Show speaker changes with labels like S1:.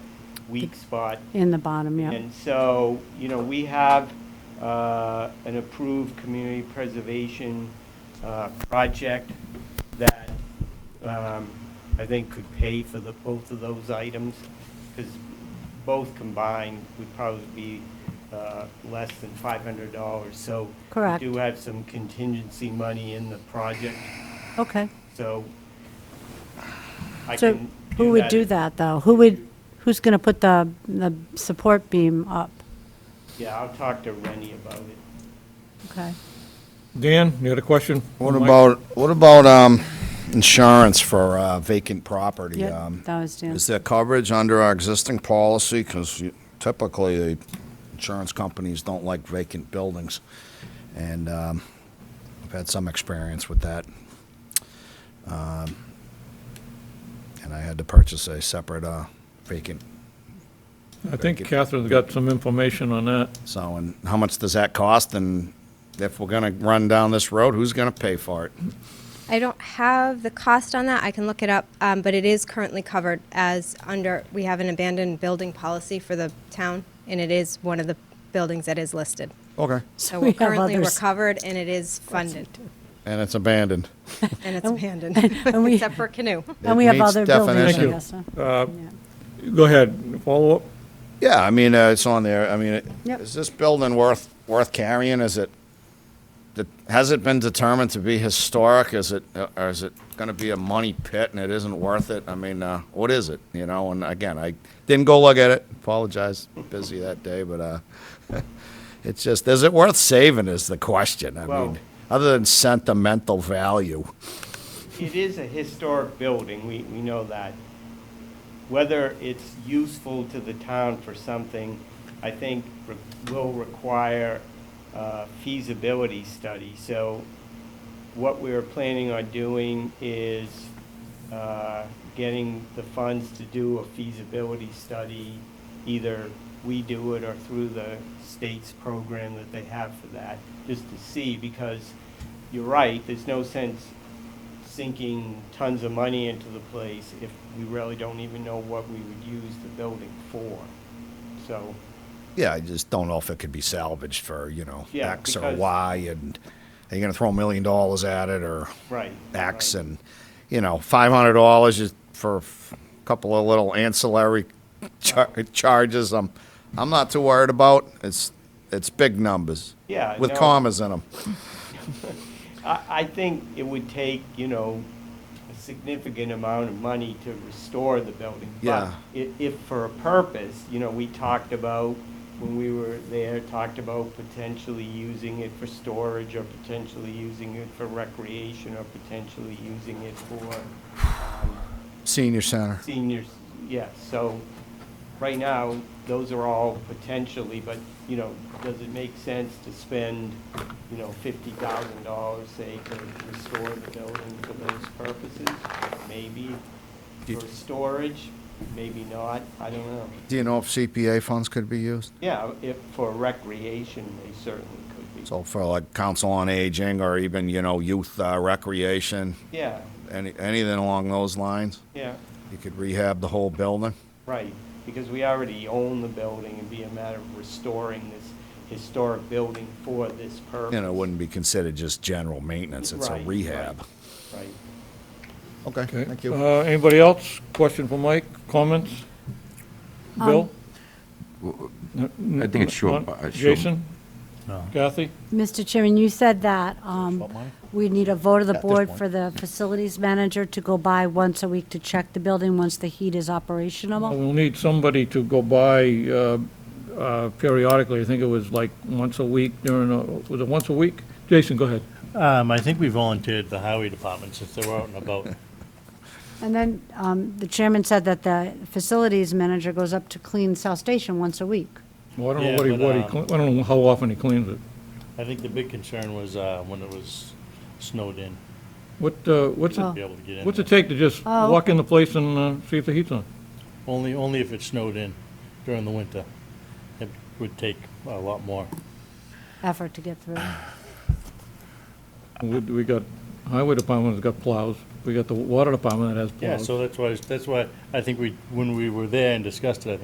S1: weak spot.
S2: in the bottom, yeah.
S1: And so, you know, we have uh, an approved community preservation uh, project that um, I think could pay for the, both of those items, because both combined would probably be uh, less than $500. So
S2: Correct.
S1: we do have some contingency money in the project,
S2: Okay.
S1: so I
S2: So
S1: can
S2: who would do
S1: if-
S2: that, though? Who would, who's going to put the, the support beam up?
S1: Yeah, I'll talk to Rennie about it.
S2: Okay.
S3: Dan, you had a question?
S4: What about, what about, um, insurance for uh, vacant property?
S2: Yeah,
S4: Um,
S2: that was Dan.
S4: Is there coverage under our existing policy? Because typically, the insurance companies don't like vacant buildings. And, um, I've had some experience with that. Um, And I had to purchase a separate, uh, vacant,
S3: I think Catherine's got some information on that.
S4: so, and how much does that cost? And if we're gonna run down this road, who's gonna pay for it?
S5: I don't have the cost on that. I can look it up, um, but it is currently covered as under, we have an abandoned building policy for the town, and it is one of the buildings that is listed.
S4: Okay.
S5: So
S2: we
S5: we're
S2: have
S5: currently, we're
S2: others.
S5: covered, and it is funded,
S4: And it's abandoned.
S5: and it's abandoned,
S2: and we-
S5: except for canoe.
S2: And we have
S4: meets
S2: other buildings, I
S4: definition.
S2: guess. huh?
S3: Go ahead, follow up.
S4: Yeah, I mean, uh, it's on there. I mean, it-
S2: Yep.
S4: is this building worth, worth carrying? Is it, the- has it been determined to be historic? Is it, uh, or is it going to be a money pit and it isn't worth it? I mean, uh, what is it, you know? And again, I didn't go look at it, apologize, busy that day, but uh, it's just, is it worth saving is the question. I
S1: Well-
S4: mean, other than sentimental value.
S1: It is a historic building, we, we know that. Whether it's useful to the town for something, I think re- will require uh, feasibility study. So what we're planning on doing is uh, getting the funds to do a feasibility study. Either we do it or through the state's program that they have for that, just to see, because you're right, there's no sense sinking tons of money into the place if we really don't even know what we would use the building for. So,
S4: Yeah, I just don't know if it could be salvaged for, you know,
S1: Yeah,
S4: X or
S1: because-
S4: Y, and are you gonna throw a million dollars at it, or
S1: right.
S4: X,
S1: right.
S4: and, you know, five hundred dollars is for a couple of little ancillary char- charges, I'm, I'm not too worried about, it's, it's big numbers.
S1: Yeah,
S4: With
S1: no.
S4: commas in them.
S1: I, I think it would take, you know, a significant amount of money to restore the building.
S4: Yeah.
S1: But i- if for a purpose, you know, we talked about, when we were there, talked about potentially using it for storage or potentially using it for recreation or potentially using it for, um,
S4: Senior center.
S1: seniors, yes, so, right now, those are all potentially, but, you know, does it make sense to spend, you know, fifty thousand dollars, say, to restore the building for those purposes? Maybe, for storage, maybe not, I don't know.
S4: Do you know if CPA funds could be used?
S1: Yeah, if, for recreation, they certainly could be.
S4: So for like council on aging, or even, you know, youth uh, recreation,
S1: Yeah,
S4: any, anything along those lines?
S1: yeah,
S4: You could rehab the whole building?
S1: right, because we already own the building, it'd be a matter of restoring this historic building for this purpose.
S4: And it wouldn't be considered just general maintenance, it's
S1: Right,
S4: a
S1: right.
S4: rehab.
S1: Right.
S4: Okay,
S3: Okay. Uh, Anybody else? Question for Mike? Comments?
S2: Um,
S3: Bill?
S6: I think it's uh, short. but it's short.
S3: Jason? Kathy?
S2: Mr. Chairman, you said that um, we need a vote of the board for the facilities manager to go by once a week to check the building once the heat is operational.
S3: We'll need somebody to go by uh, uh, periodically. I think it was like once a week during, a- was it once a week? Jason, go ahead.
S7: Um, I think we volunteered the highway department since they were out and about.
S2: And then um, the chairman said that the facilities manager goes up to clean South Station once a week.
S3: Well, I don't know
S7: Yeah,
S3: what he,
S7: but,
S3: what he,
S7: um,
S3: cle- I don't know how often he cleans it.
S7: I think the big concern was, uh, when it was snowed in,
S3: What, uh, what's
S2: Oh.
S3: it,
S7: be able to get in.
S3: what's it
S7: there.
S3: take to just
S2: Oh.
S3: walk in the place and uh, see if the heat's on?
S7: Only, only if it snowed in during the winter. It would take a lot more.
S2: effort to get through.
S3: We, we got highway department that's got plows. We got the water department that has
S7: Yeah,
S3: plows.
S7: so that's why, that's why I think we, when we were there and discussed it, I think